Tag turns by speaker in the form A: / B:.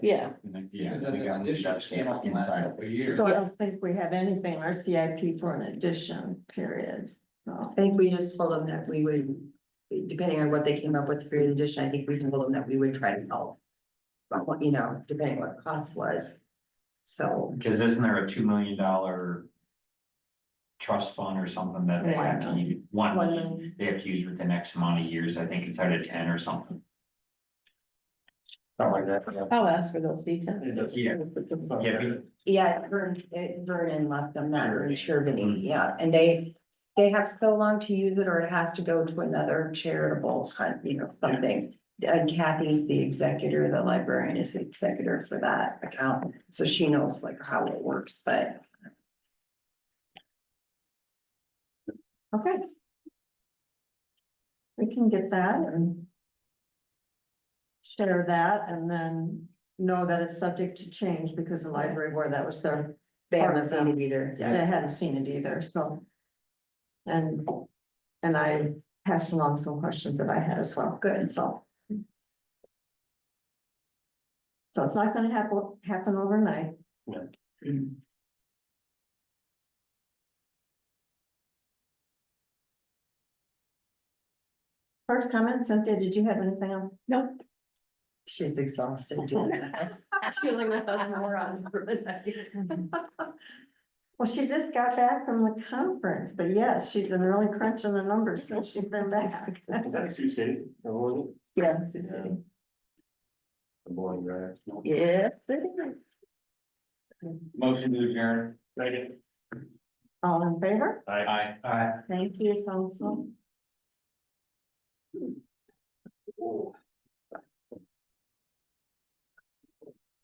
A: Yeah,
B: Yeah.
C: Because then this addition just came up in the last couple of years.
A: so I don't think we have anything in our CIP for an addition, period. So,
D: I think we just told them that we would, depending on what they came up with for the addition, I think we told them that we would try to help. But what, you know, depending what the cost was. So,
B: Cause isn't there a two million dollar? Trust fund or something that they have to, use- one,
D: One
B: million
D: million.
B: they have to use for the next amount of years, I think it's out of ten or something. Something like that, yeah.
A: I'll ask for those details.
B: Yeah. Yeah, be-
D: yeah, Vern, eh, Vernon left them not really sure, but he- yeah, and they. They have so long to use it or it has to go to another charitable, kind, you know, something. And Kathy's the executor, the librarian is the executor for that account, so she knows like how it works, but.
A: Okay. We can get that and. Share that and then know that it's subject to change because the library board, that was their,
D: They
A: Part
D: haven't
A: of
D: seen it either.
A: they hadn't seen it either, so. And, and I passed along some questions that I had as well.
D: Good.
A: So. So it's not gonna happen, happen overnight.
D: Mm-hmm.
A: First comment, Cynthia, did you have anything else? No.
D: She's exhausted doing this. Feeling like those morons for the night.
A: Well, she just got back from the conference, but yes, she's been really crunching the numbers since she's been back.
E: Is that Sioux City? Or was it?
A: Yes.
E: Yeah. The boring drive.
A: Yes, it is.
B: Motion to adjourn.
E: Second.
A: All in favor?
E: I.
B: Aye.
A: Thank you, council.